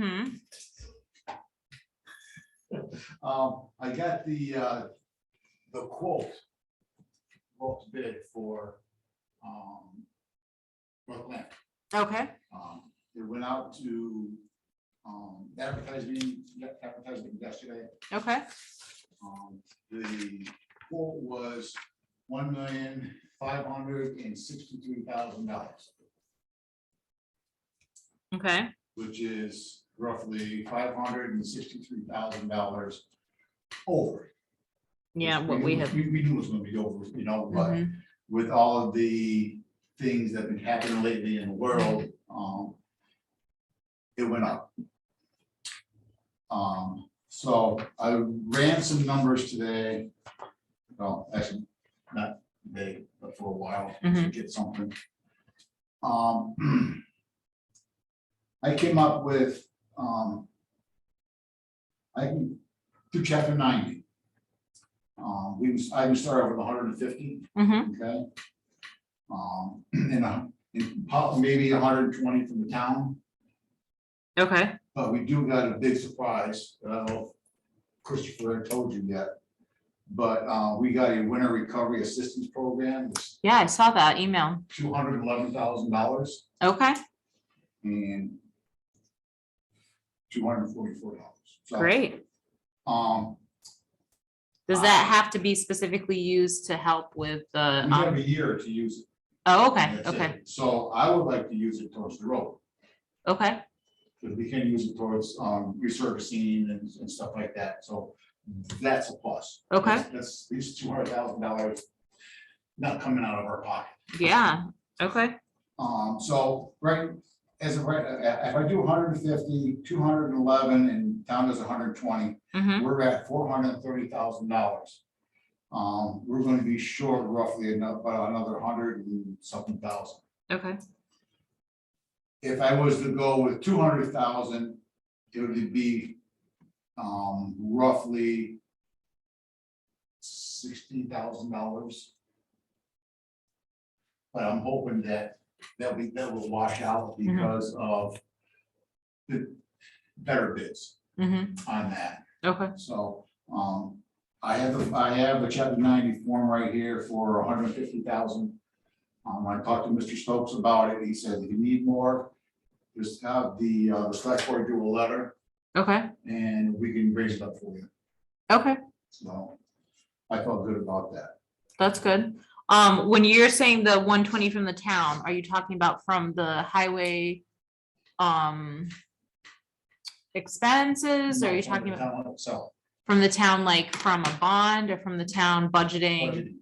Hmm, Um, I got the, uh, the quote, quote bid for, um, Brooklyn. okay, Um, It went out to, um, advertising, yeah, advertising yesterday. okay, Um, The quote was one million, five hundred and sixty-three thousand dollars, okay, which is roughly five hundred and sixty-three thousand dollars over. yeah, what we have. We, we knew it was gonna be over, you know, but Mhm. with all of the things that have been happening lately in the world, um, it went up. Um, so I ran some numbers today. Well, actually, not today, but for a while, to Mhm. get something. Um, I came up with, um, I can, through chapter ninety. Um, we, was- I can start over with hundred and fifty. Mhm. Okay. Um, and, uh, and po- maybe hundred and twenty from the town, Okay, but we do got a big surprise, I don't know if Christopher told you yet. But, uh, we got a winter recovery assistance program, it's yeah, I saw that email, two hundred and eleven thousand dollars okay, and two hundred and forty-four dollars. great. Um, Does that have to be specifically used to help with the, we have um, a year to use it. oh, okay, That's it. okay, So I would like to use it towards the road. okay, because we can use it towards um resurfacing and and stuff like that, so that's a plus. Okay. That's- That's at least two hundred thousand dollars not coming out of our pocket. yeah, okay, Um, so, right, as of right, i- if I do 150, 211, and town does hundred and twenty, mhm, we're at four hundred and thirty thousand dollars. Um, we're gonna be short roughly enough, about another hundred and something thousand. okay, if I was to go with two hundred thousand, it would be um roughly sixty thousand dollars. But I'm hoping that that we, that will wash out because of the better bids mhm, on that. okay, So, um, I have, the I have the chapter ninety form right here for hundred and fifty thousand. Um, I talked to Mr. Stokes about it, he said, if you need more, just have the, uh, the select board do a letter, okay, and we can raise it up for you, okay, so. I felt good about that. that's good. Um, when you're saying the one twenty from the town, are you talking about from the highway? Um. Expenses, are you talking about? So, From the town, like from a bond or from the town budgeting? budgeting.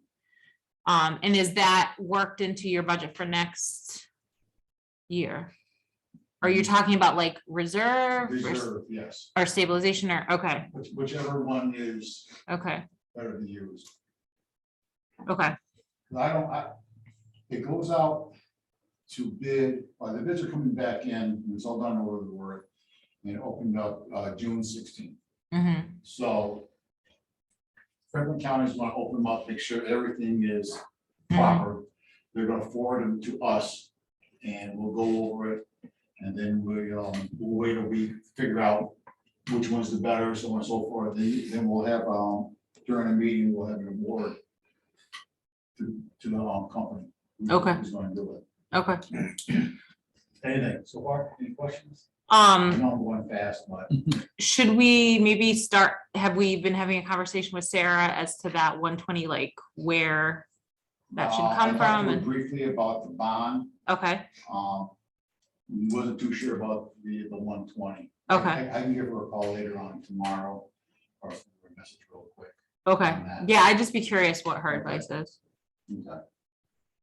Um, and is that worked into your budget for next year? Are you talking about like reserve or s- Mm-hmm. reserve, yes, or stabilization or, okay, which- whichever one is okay, better to use. okay, I don't, I, it goes out to bid, uh, the bids are coming back in, and it's all done over the word. And it opened up, uh, June sixteenth, mhm, so. Franklin County's gonna open them up, make sure everything is proper. They're gonna forward them to us, and we'll go over it, and then we, um, we'll wait a week, figure out which one's the better, so on and so forth, then, then we'll have, um, during a meeting, we'll have an award to, to the, um, company. who- Okay. Who's gonna do it. okay. Anything, so far, any questions? I Um, know I'm going fast, but. should we maybe start, have we been having a conversation with Sarah as to that one twenty, like where? That should uh, I come talked to her from, and- Briefly about the bond. okay, Um, wasn't too sure about the, the one twenty. okay, I I can give her a call later on tomorrow or send her a message real quick. okay, on that. yeah, I'd just be curious what her advice is. Okay.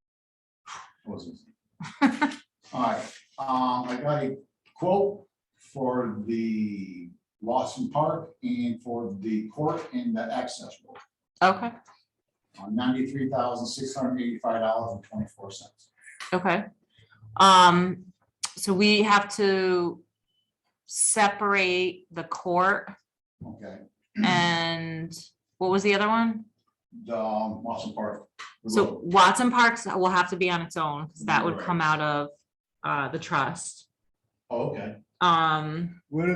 Wasn't- All right, um, I got a quote for the Lawson Park and for the court and the access road Okay, on ninety-three thousand, six hundred eighty-five dollars and twenty-four cents. okay. Um, so we have to separate the court Okay, and what was the other one? the um, Lawson Park. the So road. Watson Parks will have to be on its own, because that would Right. come out of uh the trust. Oh, Okay, Um, What